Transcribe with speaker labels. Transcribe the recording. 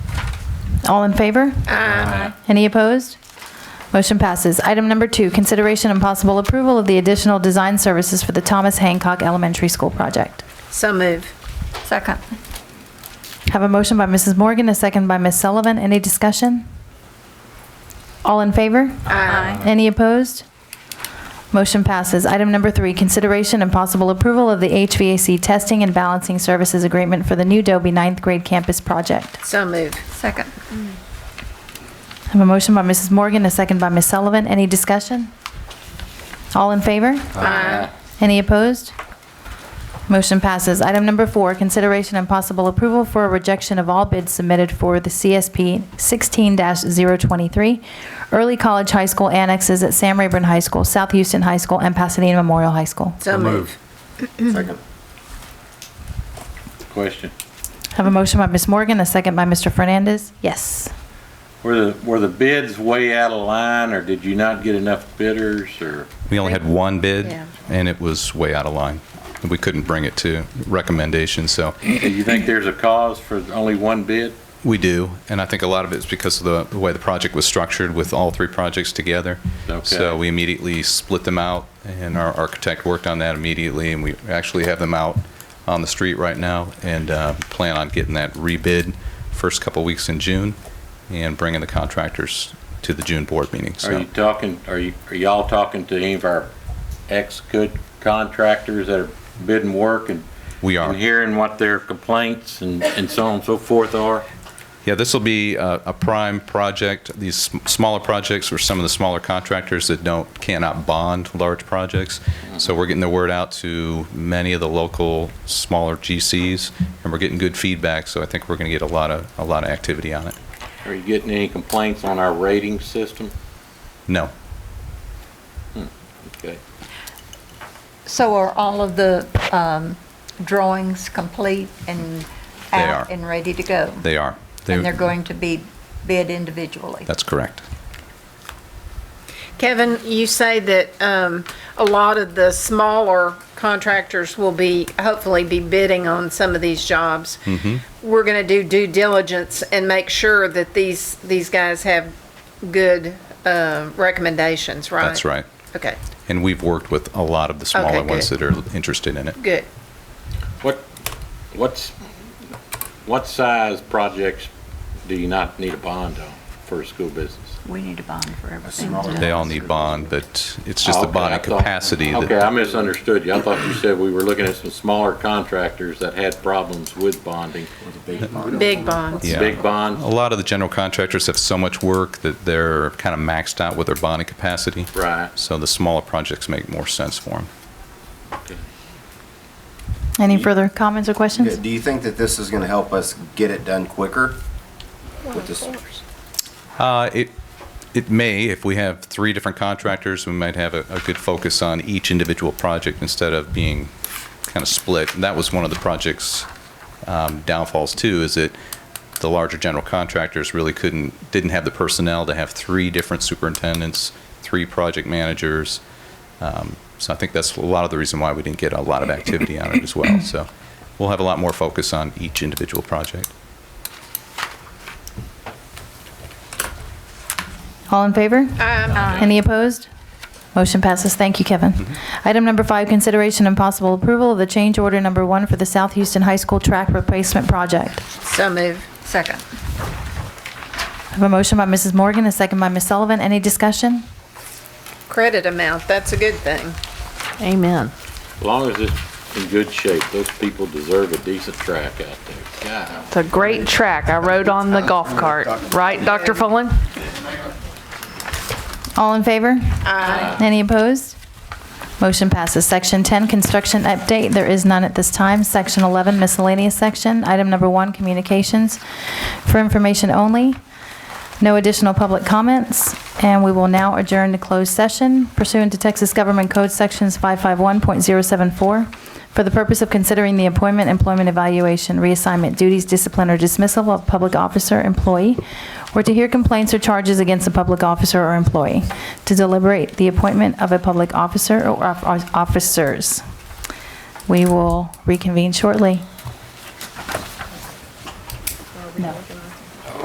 Speaker 1: All in favor? Any opposed? Motion passes. Item number two, consideration and possible approval of the additional design services for the Thomas Hancock Elementary School project.
Speaker 2: So move.
Speaker 3: Second.
Speaker 1: Have a motion by Mrs. Morgan, a second by Ms. Sullivan. Any discussion? All in favor?
Speaker 3: Aye.
Speaker 1: Any opposed? Motion passes. Item number three, consideration and possible approval of the HVAC testing and balancing services agreement for the new Dobie ninth grade campus project.
Speaker 2: So move.
Speaker 3: Second.
Speaker 1: I have a motion by Mrs. Morgan, a second by Ms. Sullivan. Any discussion? All in favor?
Speaker 2: Aye.
Speaker 1: Any opposed? Motion passes. Item number four, consideration and possible approval for a rejection of all bids submitted for the CSP 16-023, early college high school annexes at Sam Rayburn High School, South Houston High School, and Pasadena Memorial High School.
Speaker 2: So move.
Speaker 4: Second.
Speaker 5: Question.
Speaker 1: Have a motion by Ms. Morgan, a second by Mr. Fernandez. Yes.
Speaker 5: Were the, were the bids way out of line, or did you not get enough bidders, or?
Speaker 4: We only had one bid,
Speaker 2: Yeah.
Speaker 4: and it was way out of line. We couldn't bring it to recommendation, so
Speaker 5: Do you think there's a cause for only one bid?
Speaker 4: we do. And I think a lot of it's because of the- the way the project was structured with all three projects together.
Speaker 5: Okay.
Speaker 4: So we immediately split them out, and our architect worked on that immediately, and we actually have them out on the street right now and uh, plan on getting that rebid first couple weeks in June and bringing the contractors to the June board meeting.
Speaker 5: Are you
Speaker 4: So
Speaker 5: talking, are you, are y'all talking to any of our ex-good contractors that are bidding work and?
Speaker 4: we are.
Speaker 5: And hearing what their complaints and, and so on and so forth are?
Speaker 4: Yeah, this will be uh, a prime project. These sm- smaller projects are some of the smaller contractors that don't, cannot bond large projects. So we're getting the word out to many of the local smaller GCs, and we're getting good feedback, so I think we're going to get a lot of, a lot of activity on it.
Speaker 5: Are you getting any complaints on our rating system?
Speaker 4: No,
Speaker 5: Okay.
Speaker 3: So are all of the um, drawings complete and
Speaker 4: They
Speaker 3: out
Speaker 4: are.
Speaker 3: and ready to go?
Speaker 4: they are. They-
Speaker 3: And they're going to be bid individually?
Speaker 4: That's correct.
Speaker 2: Kevin, you say that um, a lot of the smaller contractors will be, hopefully be bidding on some of these jobs.
Speaker 4: Mm-hmm.
Speaker 2: We're going to do due diligence and make sure that these, these guys have good uh, recommendations, right?
Speaker 4: That's right.
Speaker 2: Okay,
Speaker 4: And we've worked with a lot of the smaller
Speaker 2: Okay,
Speaker 4: ones
Speaker 2: good.
Speaker 4: that are interested in it.
Speaker 2: good.
Speaker 5: What, what's, what size projects do you not need a bond on for a school business?
Speaker 3: We need a bond for everything.
Speaker 4: They all need bond, but it's just the
Speaker 5: Okay,
Speaker 4: bonding
Speaker 5: I thought-
Speaker 4: capacity that
Speaker 5: Okay, I misunderstood you. I thought you said we were looking at some smaller contractors that had problems with bonding.
Speaker 2: Big bonds.
Speaker 4: Yeah.
Speaker 5: Big
Speaker 4: A
Speaker 5: bonds,
Speaker 4: lot of the general contractors have so much work that they're kind of maxed out with their bonding capacity.
Speaker 5: right.
Speaker 4: So the smaller projects make more sense for them.
Speaker 1: Any further comments or questions?
Speaker 6: Do you think that this is going to help us get it done quicker? With this,
Speaker 4: Uh, it, it may, if we have three different contractors, we might have a, a good focus on each individual project instead of being kind of split. And that was one of the project's um, downfalls too, is that the larger general contractors really couldn't, didn't have the personnel to have three different superintendents, three project managers. Um, So I think that's a lot of the reason why we didn't get a lot of activity on it as well. So we'll have a lot more focus on each individual project.
Speaker 1: All in favor?
Speaker 2: Aye.
Speaker 1: Any opposed? Motion passes. Thank you, Kevin. Item number five, consideration and possible approval of the change order number one for the South Houston High School track replacement project.
Speaker 2: So move.
Speaker 3: Second.
Speaker 1: I have a motion by Mrs. Morgan, a second by Ms. Sullivan. Any discussion?
Speaker 2: Credit amount, that's a good thing.
Speaker 7: Amen.
Speaker 5: As long as it's in good shape, those people deserve a decent track out there. God,
Speaker 7: It's a great track. I rode on the golf cart, right, Dr. Fullen?
Speaker 1: All in favor? Aye. Any opposed? Motion passes. Section 10, construction update. There is none at this time. Section 11, miscellaneous section. Item number one, communications for information only. No additional public comments, and we will now adjourn to closed session pursuant to Texas Government Code Sections 551.074 for the purpose of considering the appointment, employment evaluation, reassignment, duties, discipline, or dismissal of public officer, employee, or to hear complaints or charges against a public officer or employee, to deliberate the appointment of a public officer or of- of officers. We will reconvene shortly. No.